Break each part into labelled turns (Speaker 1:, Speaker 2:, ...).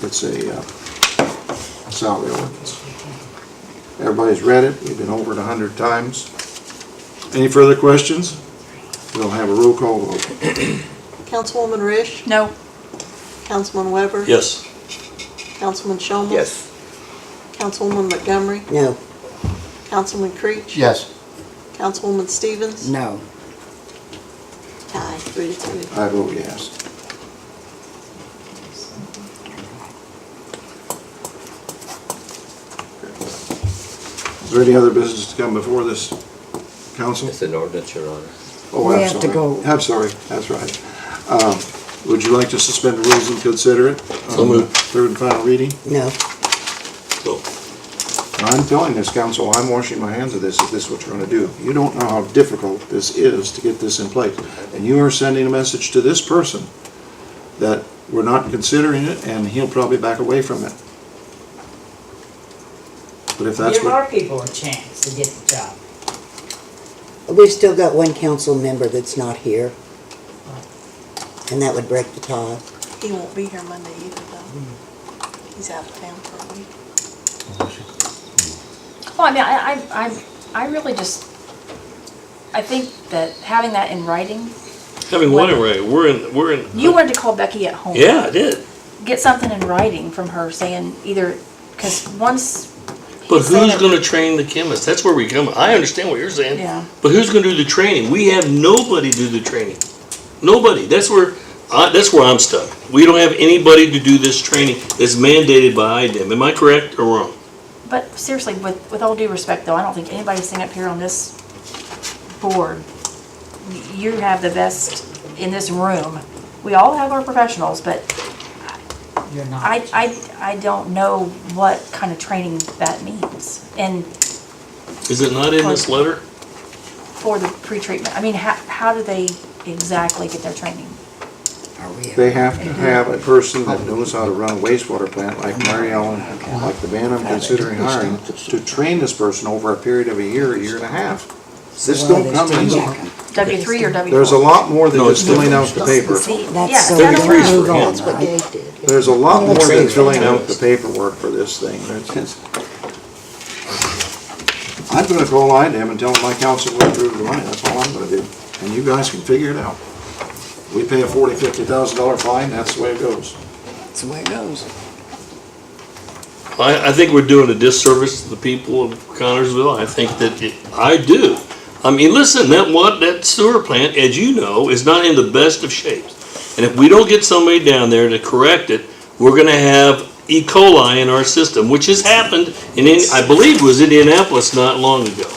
Speaker 1: It's a uh, salary ordinance. Everybody's read it, we've been over it a hundred times. Any further questions? We'll have a roll call vote.
Speaker 2: Councilwoman Rish?
Speaker 3: No.
Speaker 2: Councilman Weber?
Speaker 4: Yes.
Speaker 2: Councilman Shomel?
Speaker 5: Yes.
Speaker 2: Councilwoman Montgomery?
Speaker 5: No.
Speaker 2: Councilman Creech?
Speaker 5: Yes.
Speaker 2: Councilwoman Stevens?
Speaker 5: No.
Speaker 2: Tie, three to two.
Speaker 1: I vote yes. Is there any other business to come before this council?
Speaker 4: It's an ordinance, Your Honor.
Speaker 1: Oh,
Speaker 5: We
Speaker 1: I'm
Speaker 5: have to
Speaker 1: sorry.
Speaker 5: go.
Speaker 1: I'm sorry, that's right. Um, Would you like to suspend the rules and consider it?
Speaker 4: So
Speaker 1: on the
Speaker 4: moved.
Speaker 1: Third and final reading?
Speaker 5: No.
Speaker 4: So,
Speaker 1: And I'm telling this council, I'm washing my hands of this, if this is what you're gonna do. You don't know how difficult this is to get this in place. And you are sending a message to this person that we're not considering it, and he'll probably back away from it. But if that's
Speaker 6: Give
Speaker 1: what,
Speaker 6: our people a chance to get the job.
Speaker 5: We've still got one council member that's not here. And that would break the tie.
Speaker 2: He won't be here Monday either, though. He's out of town for a week.
Speaker 3: Well, I mean, I, I, I- I really just, I think that having that in writing,
Speaker 4: having one array, we're in, we're in.
Speaker 3: you wanted to call Becky at home.
Speaker 4: Yeah, I did.
Speaker 3: Get something in writing from her saying either, because once.
Speaker 4: But
Speaker 3: he's saying
Speaker 4: who's
Speaker 3: it-
Speaker 4: gonna train the chemists? That's where we come, I understand what you're saying.
Speaker 3: Yeah.
Speaker 4: But who's gonna do the training? We have nobody do the training. Nobody. That's where, I that's where I'm stuck. We don't have anybody to do this training that's mandated by IDEM. Am I correct or wrong?
Speaker 3: But seriously, with, with all due respect though, I don't think anybody sitting up here on this board, y- you have the best in this room. We all have our professionals, but
Speaker 6: You're not.
Speaker 3: I, I, I don't know what kind of training that means. And
Speaker 4: Is it not in this letter?
Speaker 3: for the pretreatment, I mean, how, how do they exactly get their training?
Speaker 1: they have to have a person that knows how to run a wastewater plant, like Mary Ellen, like the man I'm considering hiring, to train this person over a period of a year, a year and a half. This don't come easy.
Speaker 3: W three or W four?
Speaker 1: There's a lot more than
Speaker 4: No, it's
Speaker 1: just filling out the paper.
Speaker 3: See, yeah,
Speaker 5: That's so
Speaker 3: that's
Speaker 4: Thirty-three
Speaker 5: weird.
Speaker 4: is for
Speaker 5: Move
Speaker 4: him.
Speaker 5: on. I-
Speaker 1: There's a lot more than filling out the
Speaker 4: Trainers.
Speaker 1: paperwork for this thing. It's- it's- I'm gonna call IDEM and tell them my council will approve the money, that's all I'm gonna do. And you guys can figure it out. We pay a forty, fifty thousand dollar fine, that's the way it goes.
Speaker 5: That's the way it goes.
Speaker 4: I, I think we're doing a disservice to the people of Connersville. I think that it, I do. I mean, listen, that what that sewer plant, as you know, is not in the best of shapes. And if we don't get somebody down there to correct it, we're going to have E. coli in our system, which has happened in, in I believe, was Indianapolis not long ago.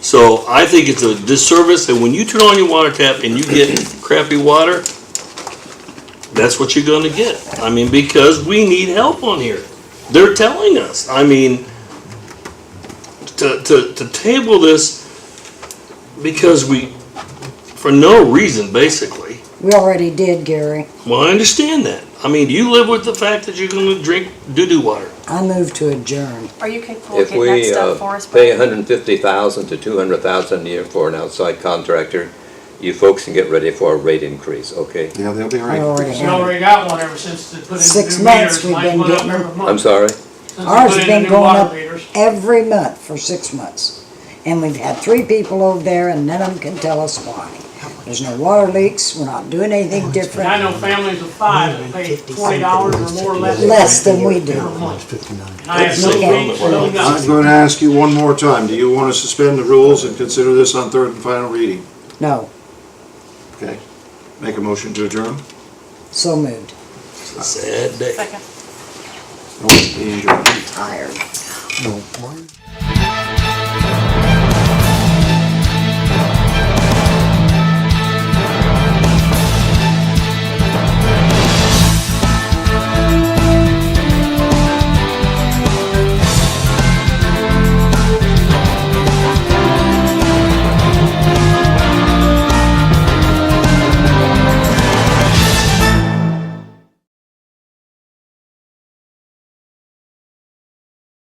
Speaker 4: So I think it's a disservice that when you turn on your water tap and you get crappy water, that's what you're going to get. I mean, because we need help on here. They're telling us. I mean, to, to, to table this because we, for no reason, basically.
Speaker 7: We already did, Gary.
Speaker 4: Well, I understand that. I mean, do you live with the fact that you're going to drink doo doo water?
Speaker 7: I move to adjourn.
Speaker 3: Are you capable of
Speaker 8: If
Speaker 3: getting that
Speaker 8: we
Speaker 3: stuff for
Speaker 8: uh,
Speaker 3: us?
Speaker 8: pay
Speaker 3: Brad?
Speaker 8: hundred and fifty thousand to two hundred thousand a year for an outside contractor, you folks can get ready for a rate increase, okay?
Speaker 1: Yeah, they'll be
Speaker 7: We
Speaker 1: right.
Speaker 7: already
Speaker 9: We
Speaker 7: had it.
Speaker 9: already got one ever since they put in
Speaker 7: Six
Speaker 9: the new
Speaker 7: months
Speaker 9: meters.
Speaker 7: we've
Speaker 9: Mike
Speaker 7: been
Speaker 9: went up
Speaker 7: getting-
Speaker 9: every month
Speaker 8: I'm sorry,
Speaker 9: since they
Speaker 7: Ours
Speaker 9: put
Speaker 7: has
Speaker 9: in the
Speaker 7: been
Speaker 9: new
Speaker 7: going
Speaker 9: water
Speaker 7: up
Speaker 9: meters.
Speaker 7: every month for six months. And we've had three people over there and none of them can tell us why. There's no water leaks, we're not doing anything
Speaker 9: And Oh, I
Speaker 7: different,
Speaker 9: know families of five that pay twenty dollars or more less.
Speaker 7: less than we do.
Speaker 9: Per month. And I have no
Speaker 4: Okay.
Speaker 9: leaks, no
Speaker 1: I'm
Speaker 9: nothing.
Speaker 1: gonna ask you one more time, do you wanna suspend the rules and consider this on third and final reading?
Speaker 7: No,
Speaker 1: Okay, make a motion to adjourn?
Speaker 7: so moved.
Speaker 4: Sad day.
Speaker 3: Second.
Speaker 1: Nope, be adjourned.
Speaker 7: Tired.